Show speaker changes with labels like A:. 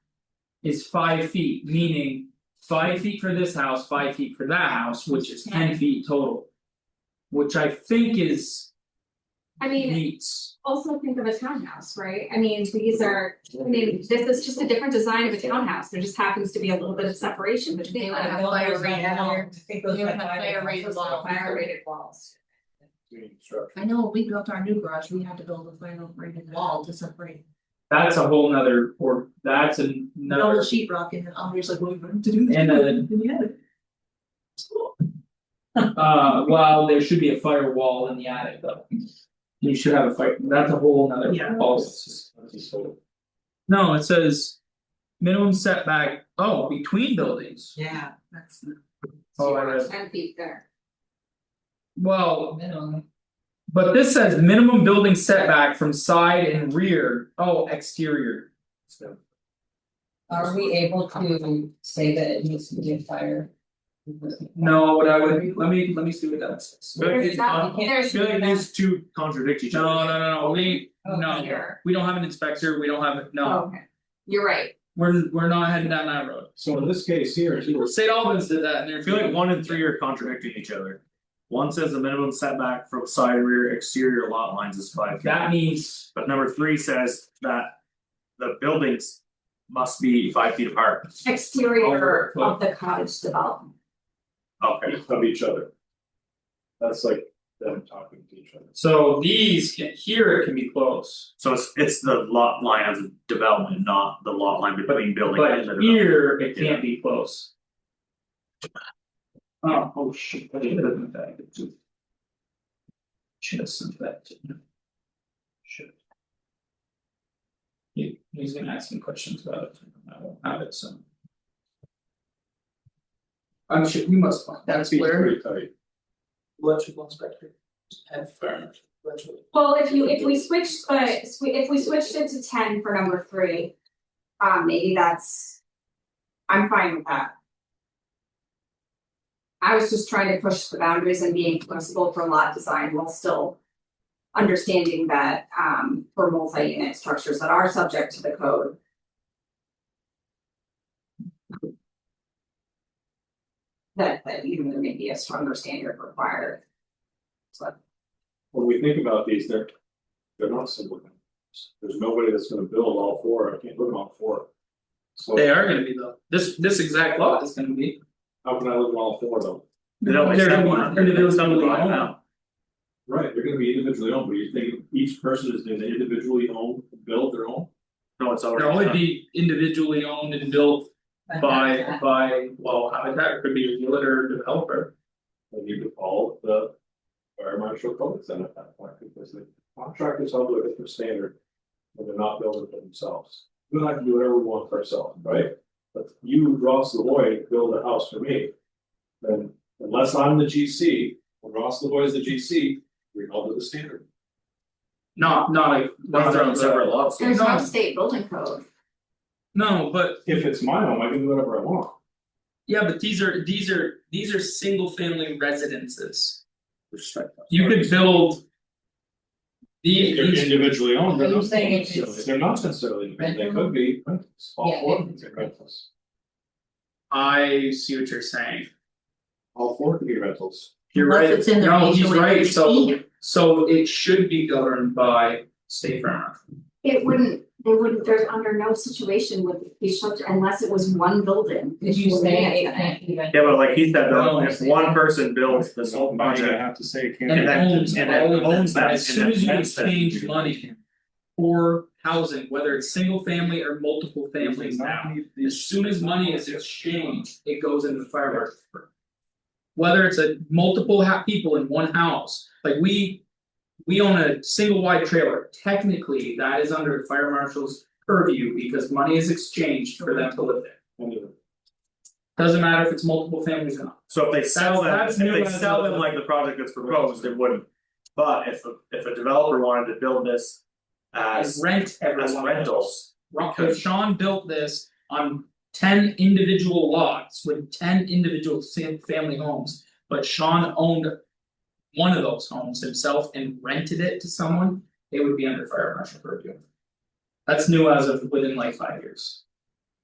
A: Is five feet, meaning five feet for this house, five feet for that house, which is ten
B: Ten.
A: feet total. Which I think is
B: I mean,
A: meets,
B: also think of a townhouse, right? I mean, these are, I mean, this is just a different design of a townhouse, there just happens to be a little bit of separation between.
C: They would have
B: them.
C: fire rated walls.
D: think
C: those You have are- fire rated walls.
B: Fire rated walls.
C: I know when we built our new garage, we had to build a final rated wall to separate.
A: that's a whole nother, or that's an-
C: Double
A: another,
C: sheet rock and then Andre's like, well, we wanted to do this.
A: And then-
C: we
E: uh,
C: had it. It's cool.
B: Oh.
A: uh, well, there should be a firewall in the attic though. You should have a fire, that's a whole nother
C: Yeah.
A: policy. No, it says. Minimum setback, oh, between buildings.
C: Yeah, that's.
A: Oh, I read-
B: Ten feet there.
A: Well, But this says minimum building setback from side and rear, oh, exterior.
D: Are we able to say that it needs to be a fire?
A: No, what I would, let me, let me see what that says.
E: But uh,
B: There's
E: it's
B: not-
E: not,
B: there's
E: feel like these two contradict each other.
A: No, no, no, no, we,
B: not
A: no,
B: here.
A: we don't have an inspector, we don't have, no,
B: Oh, Okay, you're right,
A: we're, we're not heading down that road.
F: So in this case here, too,
A: St. Albans did that and
E: I
A: they're
E: feel like
A: feeling,
E: one and three are contradicting each other. One says the minimum setback from side rear exterior lot lines is five feet,
A: that means,
E: but number three says that. The buildings must be five feet apart,
B: exterior
A: Over.
B: of the cottage development.
E: okay,
F: of each other. That's like them talking to each other.
A: so these can, here it can be close.
E: so it's it's the lot line of development, not the lot line between building and the
A: But
E: development.
A: here, it can't be close. Oh, oh shit, I did it in fact. Should have sent that. to him. Should. He he's gonna ask me questions about it, I won't have it, so. I'm sure we must find that
F: Feet's Pretty tight.
A: electrical inspector. And fire, electrical.
B: Well, if you, if we switched, but if we switched it to ten for number three. Um, maybe that's. I'm fine with that. I was just trying to push the boundaries and being flexible for lot design while still. Understanding that, um, for multi-unit structures that are subject to the code. That, that you know, there may be a stronger standard required.
F: When we think about these, they're, they're not simple. numbers. There's nobody that's gonna build all four, I can't live on all four. So
A: They are gonna be though, this this exact lot is gonna be.
F: how can I live on all four of them?
E: They don't
A: They're
E: accept
A: gonna be
E: one,
A: individually
E: Right
A: owned.
E: now.
F: Right, they're gonna be individually owned, but you think each person is gonna individually own, build their own?
E: No, it's
A: They'll
E: already
A: only
E: done.
A: be individually owned and built by by, well, Habitat it could be a realtor or developer.
F: And you could follow the fire marshal codes then at that point, because the contractors held to a different standard. And they're not building for themselves, we don't have to do whatever we want for ourselves, right? But you, Ross Lavoy, build a house for me. Then unless I'm the G C, or Ross Lavoy is the G C, we're held to the standard.
A: Not not like.
E: Those are on separate lots.
A: There's no
B: state building code.
A: No, but
F: If it's my home, I can do whatever I want.
A: yeah, but these are these are these are single family residences.
F: Respect. that.
A: You could build.
F: If
A: The
F: They're
A: these,
F: individually owned, they're
D: Are you
F: not
D: saying it's-
F: necessarily, they're not necessarily, they
D: Rental?
F: could be, rentals. all
D: Yeah,
F: four
D: they-
F: of them are rentals,
A: I see what you're saying,
F: all four could be rentals.
A: you're
C: Unless
A: right,
C: it's in their
A: no, he's
C: HOA
A: right, so
C: regime.
A: so it should be governed by state farm.
B: It wouldn't, they wouldn't, there's under no situation would it be shelter unless it was one building.
D: Did you say it can't be rented?
E: Yeah, but like he said,
A: No.
E: though, if one person builds this whole
F: Now you're
E: project,
F: gonna have to say it can't.
A: And
F: be
A: it
E: that-
A: owns,
E: and
A: and
E: that-
A: it owns that,
E: that-
A: as
E: and
A: soon
E: that-
A: as you
E: that's that-
A: exchange money. For housing, whether it's single family or multiple families now, as soon as money is exchanged, it goes into the fire market. Whether it's a multiple ha- people in one house, like we. We own a single wide trailer, technically that is under the fire marshal's purview because money is exchanged for them to live there.
F: Anyway.
A: Doesn't matter if it's multiple families or not,
E: So if they sell them,
A: That's-
E: if
A: that's new
E: they
A: as
E: sell
A: well.
E: them like the project that's proposed, it wouldn't. But if a if a developer wanted to build this
A: as
E: as
A: rent everyone.
E: as rentals,
A: Rock, if Sean built this on ten individual lots with ten individual sam- family homes, but Sean owned. One of those homes himself and rented it to someone, it would be under fire marshal purview. That's new as of within like five years.